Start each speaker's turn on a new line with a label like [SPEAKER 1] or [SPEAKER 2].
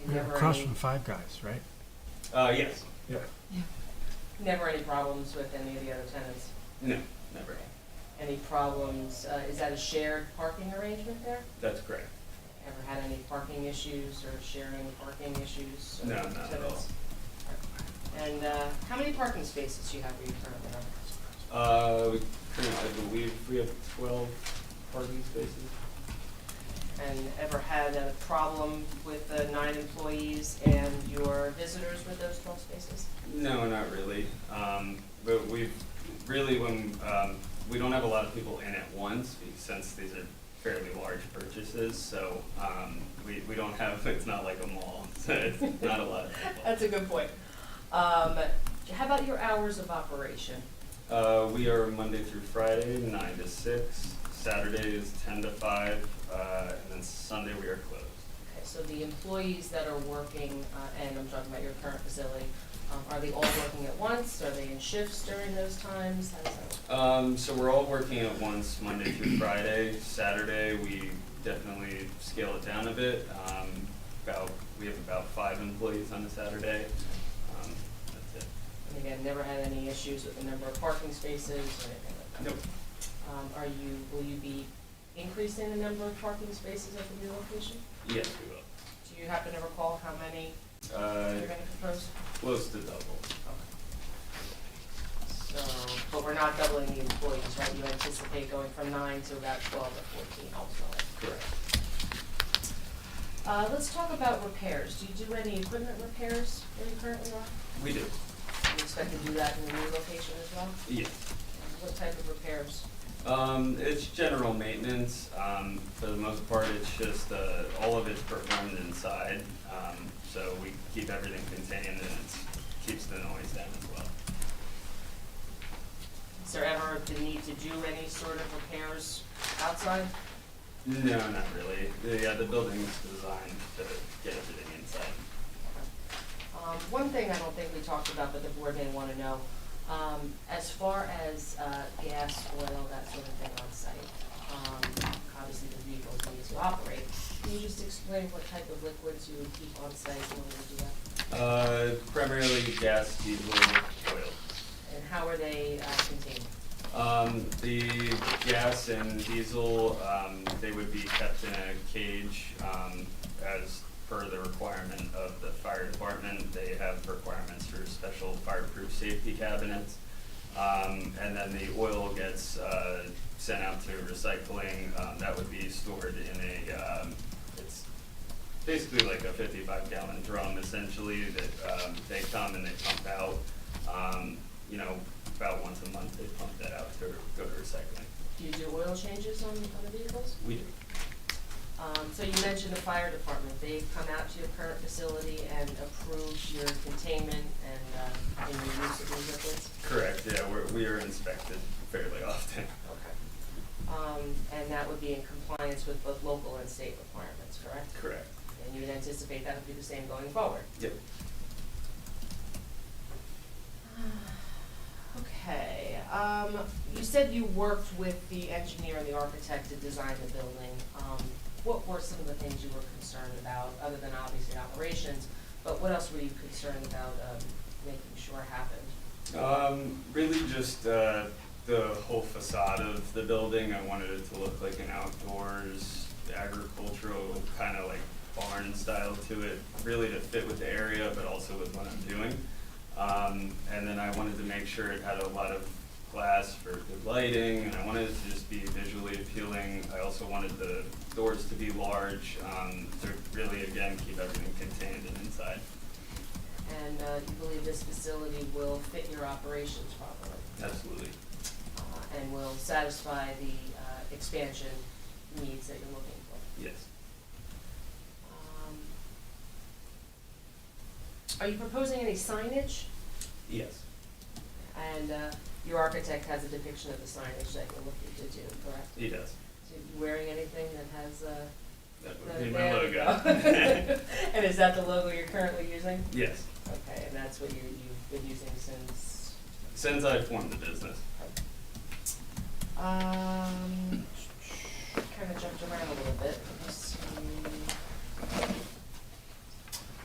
[SPEAKER 1] never
[SPEAKER 2] Across
[SPEAKER 1] any-
[SPEAKER 2] from Five Guys, right?
[SPEAKER 3] Uh, yes.
[SPEAKER 1] Never any problems with any of the other tenants?
[SPEAKER 3] No, never.
[SPEAKER 1] Any problems, uh, is that a shared parking arrangement there?
[SPEAKER 3] That's correct.
[SPEAKER 1] Ever had any parking issues or sharing parking issues? or
[SPEAKER 3] No, not at
[SPEAKER 1] tenants? And uh, how many parking spaces do you have where you currently are?
[SPEAKER 3] Uh, we, currently, I believe we have twelve parking spaces.
[SPEAKER 1] And ever had a problem with the nine employees and your visitors with those 12 spaces?
[SPEAKER 3] No, not really. Um, but we've, really, when, um, we don't have a lot of people in at once, be- since these are fairly large purchases, so, um, we, we don't have, it's not like a mall, so it's not a lot of people.
[SPEAKER 1] That's a good point. Um, How about your hours of operation?
[SPEAKER 3] Uh, we are Monday through Friday, nine to six, Saturday is ten to five, uh, and then Sunday we are closed.
[SPEAKER 1] Okay, so the employees that are working, uh, and I'm talking about your current facility, um, are they all working at once? Are they in shifts during those times? How does that work?
[SPEAKER 3] Um, so we're all working at once Monday through Friday. Saturday, we definitely scale it down a bit. Um, about we have about five employees on a Saturday. Um, that's it.
[SPEAKER 1] And again, never had any issues with the number of parking spaces or anything like that?
[SPEAKER 3] Nope.
[SPEAKER 1] Um, Are you, will you be increasing the number of parking spaces at the new location?
[SPEAKER 3] Yes, we
[SPEAKER 1] Do you happen to recall how many
[SPEAKER 3] will. Uh,
[SPEAKER 1] you're gonna propose?
[SPEAKER 3] close to double.
[SPEAKER 1] So, but we're not doubling the employees, right? You anticipate going from nine to about twelve or fourteen ultimately?
[SPEAKER 3] Correct.
[SPEAKER 1] Uh, let's talk about repairs. Do you do any equipment repairs where you currently are?
[SPEAKER 3] We do.
[SPEAKER 1] Do you expect to do that in the new location as well?
[SPEAKER 3] Yes.
[SPEAKER 1] And What type of repairs?
[SPEAKER 3] Um, it's general maintenance, um, for the most part, it's just, uh, all of it's performed inside, um, so we keep everything contained and it keeps the noise down as well.
[SPEAKER 1] Is there ever the need to do any sort of repairs outside?
[SPEAKER 3] No, not really, The- yeah, the building's designed to get everything inside.
[SPEAKER 1] Um, one thing I don't think we talked about, but the board may wanna know, um, as far as, uh, gas, oil, that sort of thing on site, um, obviously the vehicles need to operate. Can you just explain what type of liquids you would keep on site in order to do that?
[SPEAKER 3] Uh, primarily gas, diesel, oil.
[SPEAKER 1] And how are they, uh, contained?
[SPEAKER 3] Um, the gas and diesel, um, they would be kept in a cage, um, as per the requirement of the fire department. They have requirements for special fireproof safety cabinets. Um, and then the oil gets, uh, sent out to recycling, um, that would be stored in a, um, it's basically like a fifty-five gallon drum essentially that, um, they come and they pump out. Um, you know, about once a month they pump that out to go to recycling.
[SPEAKER 1] Do you do oil changes on, on the vehicles?
[SPEAKER 3] We do.
[SPEAKER 1] Um, so you mentioned the fire department, they come out to your current facility and approve your containment and, uh, and your use of these liquids?
[SPEAKER 3] Correct, yeah, we're, we are inspected fairly often.
[SPEAKER 1] Okay. Um, and that would be in compliance with both local and state requirements, correct?
[SPEAKER 3] Correct.
[SPEAKER 1] And you would anticipate that would be the same going forward?
[SPEAKER 3] Yep.
[SPEAKER 1] Okay, um, you said you worked with the engineer and the architect to design the building. Um, what were some of the things you were concerned about, other than obviously operations? But what else were you concerned about, um, making sure happened?
[SPEAKER 3] Um, really just, uh, the whole facade of the building, I wanted it to look like an outdoors agricultural, kinda like barn style to it, really to fit with the area, but also with what I'm doing. Um, and then I wanted to make sure it had a lot of glass for good lighting, and I wanted it to just be visually appealing. I also wanted the doors to be large, um, to really, again, keep everything contained and inside.
[SPEAKER 1] And, uh, you believe this facility will fit your operations properly?
[SPEAKER 3] Absolutely.
[SPEAKER 1] uh, and will satisfy the uh, expansion needs that you're looking for.
[SPEAKER 3] Yes.
[SPEAKER 1] Um, Are you proposing any signage?
[SPEAKER 3] Yes.
[SPEAKER 1] And uh, your architect has a depiction of the signage that you're looking to do, correct?
[SPEAKER 3] He does.
[SPEAKER 1] So you wearing anything that has uh,
[SPEAKER 3] That
[SPEAKER 1] the-
[SPEAKER 3] would be my
[SPEAKER 1] there we
[SPEAKER 3] logo.
[SPEAKER 1] go. And is that the logo you're currently using?
[SPEAKER 3] yes.
[SPEAKER 1] Okay, and that's what you, you've been using since?
[SPEAKER 3] Since I formed the business.
[SPEAKER 1] Um, kind of jumped around a little bit. Let me